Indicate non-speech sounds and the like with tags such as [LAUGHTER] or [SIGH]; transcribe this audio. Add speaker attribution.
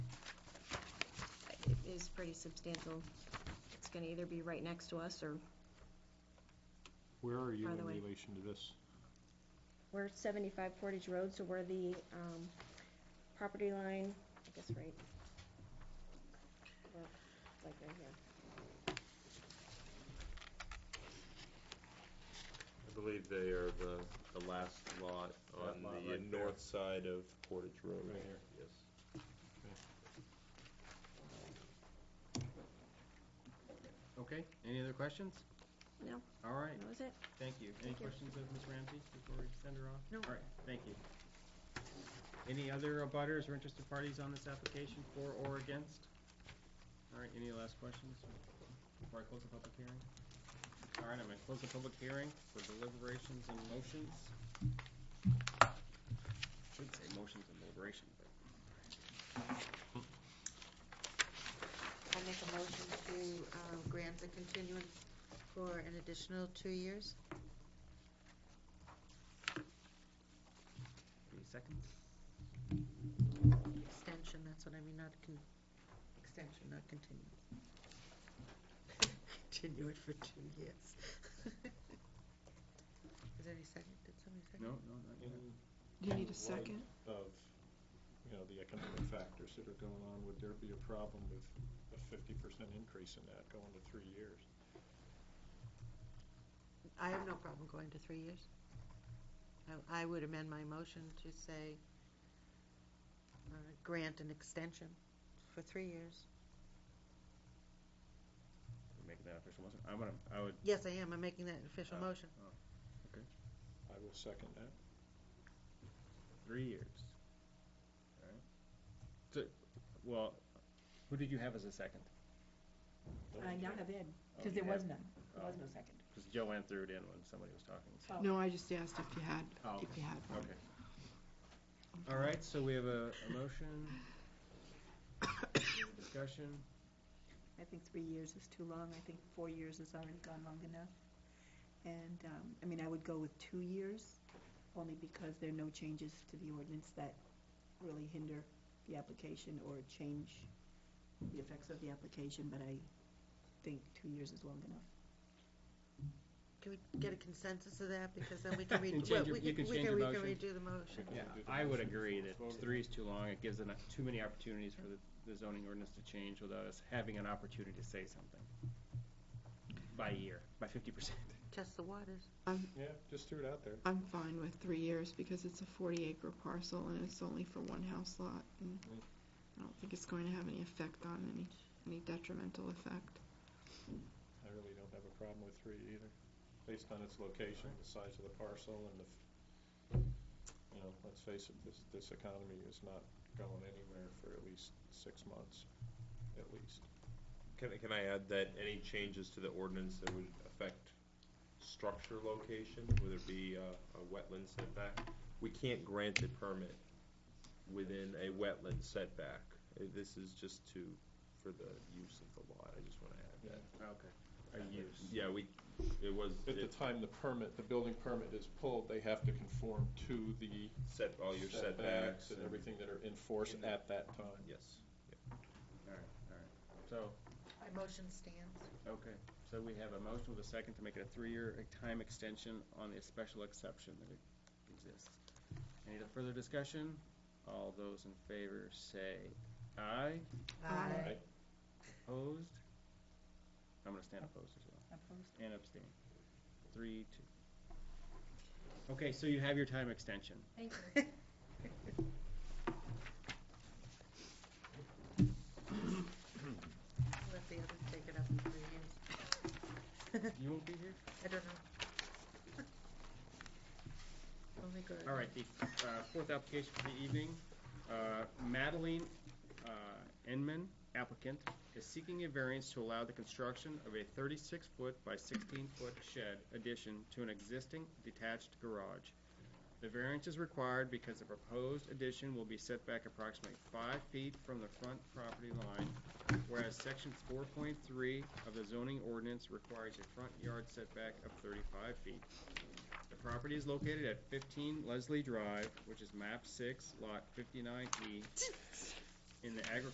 Speaker 1: is pretty substantial. It's gonna either be right next to us or
Speaker 2: Where are you
Speaker 1: Farther
Speaker 2: in
Speaker 1: away.
Speaker 2: relation to this?
Speaker 1: We're seventy-five Portage Road, so we're the, um, property line, I guess, right? We're like right here.
Speaker 3: I believe they are the, the last lot
Speaker 2: That
Speaker 3: on
Speaker 2: lot
Speaker 3: the
Speaker 2: right there.
Speaker 3: north side of Portage Road.
Speaker 2: Right here.
Speaker 3: Yes.
Speaker 4: Okay, any other questions?
Speaker 1: No.
Speaker 4: All right,
Speaker 1: That was it?
Speaker 4: thank you. Any
Speaker 1: Thank you.
Speaker 4: questions of Ms. Ramsey before we send her off?
Speaker 1: No.
Speaker 4: All right, thank you. Any other abutters or interested parties on this application for or against? All right, any last questions before I close the public hearing? All right, I'm gonna close the public hearing for deliberations and motions. Should say motions and deliberation, but
Speaker 5: I make a motion to uh, grant the continuance for an additional two years.
Speaker 4: any seconds?
Speaker 5: Extension, that's what I mean, not con, extension, not continuance. [LAUGHS] Continue it for two years. [LAUGHS] Is there any second? Did somebody second?
Speaker 4: No, no, not yet.
Speaker 6: You
Speaker 2: In
Speaker 6: need a second?
Speaker 2: light Of, you know, the economic factors that are going on, would there be a problem with a fifty percent increase in that going to three years?
Speaker 5: I have no problem going to three years. I, I would amend my motion to say, uh, grant an extension for three years.
Speaker 4: Make that official motion. I'm gonna, I would,
Speaker 5: Yes, I am, I'm making that an official
Speaker 4: Oh.
Speaker 5: motion.
Speaker 2: I will second that.
Speaker 4: Three years. All right. So, well, who did you have as a second?
Speaker 7: I now Uh, have Ed,
Speaker 4: Oh,
Speaker 7: because
Speaker 4: you
Speaker 7: there
Speaker 4: had-
Speaker 7: was none, there was no second.
Speaker 4: Because Joe went through it in when somebody was talking. so-
Speaker 7: Oh.
Speaker 6: No, I just asked if you had,
Speaker 4: Oh,
Speaker 6: if you had one.
Speaker 4: okay. All right, so we have a, a motion. [COUGHS] We have a Discussion.
Speaker 7: I think three years is too long, I think four years has already gone long enough. And, um, I mean, I would go with two years, only because there are no changes to the ordinance that really hinder the application or change the effects of the application, but I think two years is long enough.
Speaker 5: Can we get a consensus of that, because then
Speaker 4: [LAUGHS]
Speaker 5: we can
Speaker 4: You
Speaker 5: redo,
Speaker 4: can change
Speaker 5: we
Speaker 4: your-
Speaker 5: can, we
Speaker 4: you
Speaker 5: can
Speaker 4: can change your motion.
Speaker 5: redo the motion.
Speaker 4: Yeah,
Speaker 2: Do the
Speaker 4: I would
Speaker 2: motion.
Speaker 4: agree that
Speaker 2: Vote.
Speaker 4: three is too long. It gives enough, too many opportunities for the, the zoning ordinance to change without us having an opportunity to say something. By year, by fifty percent.
Speaker 5: Test the waters.
Speaker 2: Yeah, just threw it out there.
Speaker 6: I'm fine with three years because it's a forty acre parcel and it's only for one house lot. And
Speaker 2: Mm.
Speaker 6: I don't think it's going to have any effect on any, any detrimental effect.
Speaker 2: I really don't have a problem with three either, based on its location, the size of the parcel, and the, f- you know, let's face it, this, this economy is not going anywhere for at least six months, at least.
Speaker 3: Can, I- can I add that any changes to the ordinance that would affect structure location, whether it be uh, a wetland setback? We can't grant a permit within a wetland setback. Uh, This is just to, for the use of the lot, I just want to add that.
Speaker 4: Okay. A use.
Speaker 3: Yeah, we, it was,
Speaker 2: At the
Speaker 3: it
Speaker 2: time the permit, the building permit is pulled, they have to conform to the
Speaker 3: set, all your
Speaker 2: setbacks and everything
Speaker 3: everything.
Speaker 2: that are in force
Speaker 4: In the-
Speaker 2: at that time.
Speaker 3: Yes.
Speaker 4: So,
Speaker 5: My motion stands.
Speaker 4: Okay, so we have a motion with a second to make it a three-year time extension on the special exception that exists. Any further discussion? All those in favor say aye.
Speaker 6: Aye.
Speaker 4: Opposed? I'm gonna stand opposed as well,
Speaker 7: Opposed?
Speaker 4: and abstain. Three, two. Okay, so you have your time extension.
Speaker 1: Thank you.
Speaker 5: Let the others take it up in three years. [LAUGHS]
Speaker 4: You won't be here?
Speaker 5: I don't know. [LAUGHS] Only good.
Speaker 4: All right, the uh, fourth application for the evening, uh, Madeline uh, Enman, applicant, is seeking a variance to allow the construction of a 36-foot by 16-foot shed addition to an existing detached garage. The variance is required because the proposed addition will be set back approximately five feet from the front property line, whereas Section 4.3 of the zoning ordinance requires a front yard setback of 35 feet. The property is located at 15 Leslie Drive, which is map 6, lot 59E, E, in the agricultural